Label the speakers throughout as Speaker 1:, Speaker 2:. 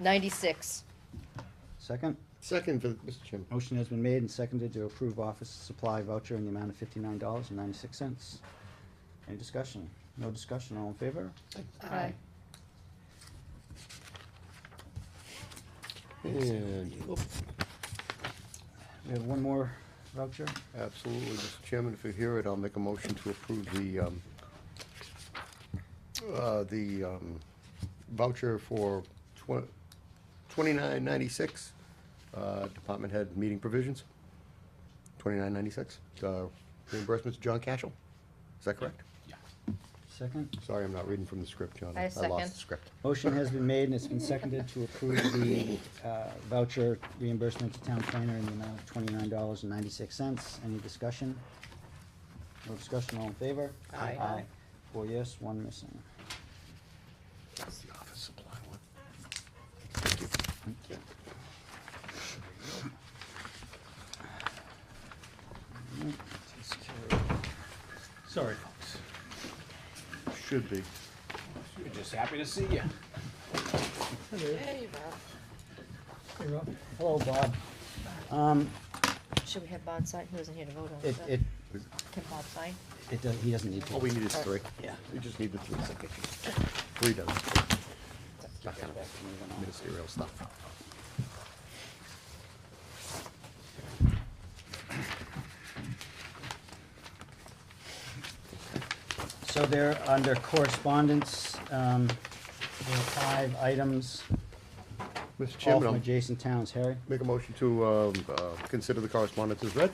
Speaker 1: Ninety-six.
Speaker 2: Second,
Speaker 3: Second for Mr. Chairman.
Speaker 2: motion has been made and seconded to approve office supply voucher in the amount of fifty-nine dollars and ninety-six cents. Any discussion? No discussion, all in favor?
Speaker 1: Aye.
Speaker 3: And, oh,
Speaker 2: We have one more voucher.
Speaker 3: absolutely, Mr. Chairman, if you hear it, I'll make a motion to approve the, um, uh, the, um, voucher for twen- twenty-nine ninety-six, uh, department head meeting provisions. Twenty-nine ninety-six, uh, reimbursements to John Cashel. Is that correct?
Speaker 2: Second,
Speaker 3: Sorry, I'm not reading from the script, John.
Speaker 1: I second.
Speaker 3: lost the script.
Speaker 2: motion has been made and it's been seconded to approve the uh, voucher reimbursement to town planner in the amount of twenty-nine dollars and ninety-six cents. Any discussion? No discussion, all in favor?
Speaker 1: Aye.
Speaker 2: Aye. Four yes, one missing.
Speaker 3: That's the office supply one.
Speaker 4: Sorry, folks.
Speaker 3: Should be.
Speaker 4: We're just happy to see you.
Speaker 2: Hello, Bob. Um,
Speaker 1: Should we have Bob sign? He wasn't here to vote on
Speaker 2: It,
Speaker 1: it.
Speaker 2: it,
Speaker 1: Can Bob sign?
Speaker 2: it does, he doesn't need to.
Speaker 3: All Oh, we need is three.
Speaker 2: Yeah.
Speaker 3: We just need the three. Three done. That kind of ministerial stuff.
Speaker 2: So there, under correspondence, um, there are five items,
Speaker 3: Mr.
Speaker 2: all
Speaker 3: Chairman,
Speaker 2: from
Speaker 3: I'll
Speaker 2: adjacent towns. Harry?
Speaker 3: make a motion to, um, uh, consider the correspondence as read.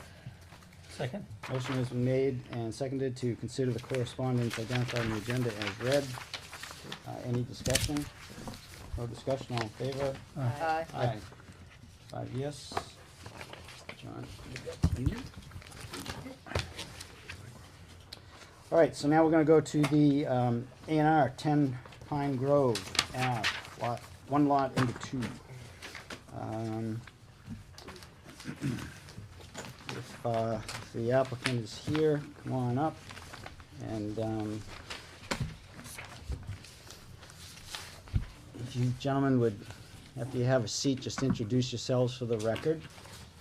Speaker 4: Second.
Speaker 2: Motion has been made and seconded to consider the correspondence identified on the agenda as read. Uh, any discussion? No discussion, all in favor?
Speaker 1: Aye.
Speaker 2: Aye. Five yes. John? you got- you? All right, so now we're gonna go to the, um, A and R, ten Pine Grove, Ave, lot, one lot into two. Um, If, uh, the applicant is here, come on up, and, um, if you gentlemen would, after you have a seat, just introduce yourselves for the record,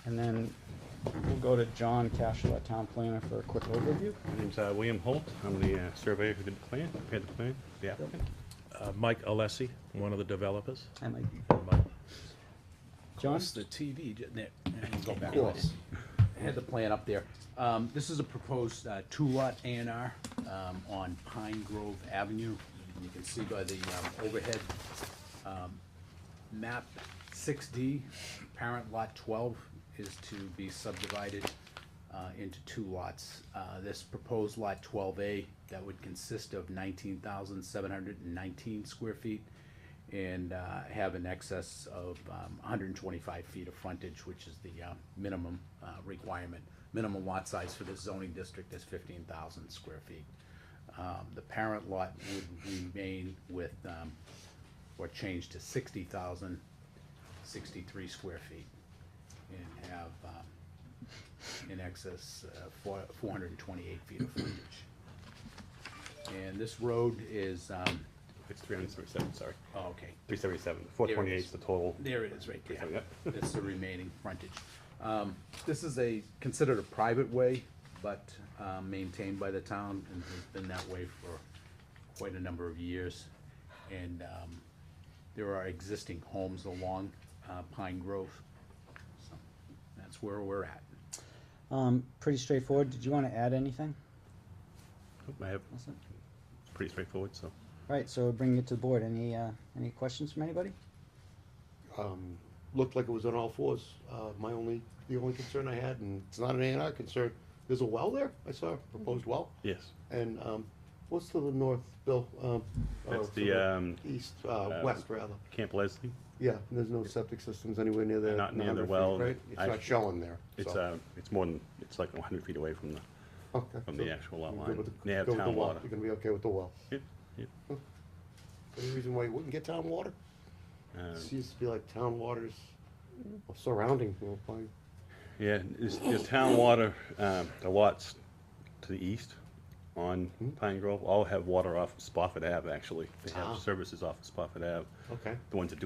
Speaker 2: and then we'll go to John Cashel, our town planner, for a quick overview.
Speaker 5: My name's uh, William Holt. I'm the uh, surveyor who did the plan, prepared the plan, the applicant. Uh, Mike Alessi, one of the developers.
Speaker 2: I might,
Speaker 5: Mike.
Speaker 2: John?
Speaker 4: It's the TV, didn't it? And we'll go back.
Speaker 3: course.
Speaker 4: Had the plan up there. Um, this is a proposed, uh, two-lot A and R, um, on Pine Grove Avenue. You can see by the, um, overhead, um, map six D, parent lot twelve is to be subdivided, uh, into two lots. Uh, this proposed lot twelve A, that would consist of nineteen thousand seven hundred and nineteen square feet and uh, have an excess of um, 125 feet of frontage, which is the uh, minimum uh, requirement. Minimum lot size for this zoning district is 15,000 square feet. Um, The parent lot would remain with, um, or change to 60,063 square feet and have um, in excess uh, of 428 feet of frontage. And this road is, um,
Speaker 5: It's 337, sorry.
Speaker 4: oh, okay,
Speaker 5: 377, 428 is the total.
Speaker 4: there it is, right there.
Speaker 5: Yep.
Speaker 4: It's the remaining frontage. Um, This is a, considered a private way, but uh, maintained by the town, and has been that way for quite a number of years. And um, there are existing homes along uh, Pine Grove. So That's where we're at.
Speaker 2: Um, pretty straightforward. Did you wanna add anything?
Speaker 5: I have,
Speaker 2: That's it.
Speaker 5: pretty straightforward, so.
Speaker 2: All right, so bring it to the board. Any, uh, any questions from anybody?
Speaker 3: Um, looked like it was on all fours. Uh, my only, the only concern I had, and it's not an A and R concern, there's a well there. I saw a proposed well.
Speaker 5: Yes.
Speaker 3: And, um, what's to the north, Bill? Um, uh,
Speaker 5: That's
Speaker 3: to
Speaker 5: the, um,
Speaker 3: East, uh, west rather.
Speaker 5: Camp Leslie.
Speaker 3: Yeah, and there's no septic systems anywhere near there.
Speaker 5: Not near
Speaker 3: 100
Speaker 5: the
Speaker 3: feet,
Speaker 5: well.
Speaker 3: right? It's
Speaker 5: I-
Speaker 3: not showing there.
Speaker 5: It's,
Speaker 3: so-
Speaker 5: uh, it's more than, it's like 100 feet away from the,
Speaker 3: Okay,
Speaker 5: from
Speaker 3: so
Speaker 5: the actual lot
Speaker 3: you're
Speaker 5: line.
Speaker 3: good with the-
Speaker 5: They have
Speaker 3: good with the
Speaker 5: town
Speaker 3: well.
Speaker 5: water.
Speaker 3: You're gonna be okay with the well.
Speaker 5: Yep, yep.
Speaker 3: Any reason why you wouldn't get town water?
Speaker 5: Um,
Speaker 3: It used to be like town waters or surrounding, you know, by-
Speaker 5: Yeah, is, is town water, um, the lots to the east on
Speaker 3: Hmm?
Speaker 5: Pine Grove all have water off Spofford Ave, actually. They
Speaker 3: Ah.
Speaker 5: have services off of Spofford Ave.
Speaker 3: okay.
Speaker 5: The ones that do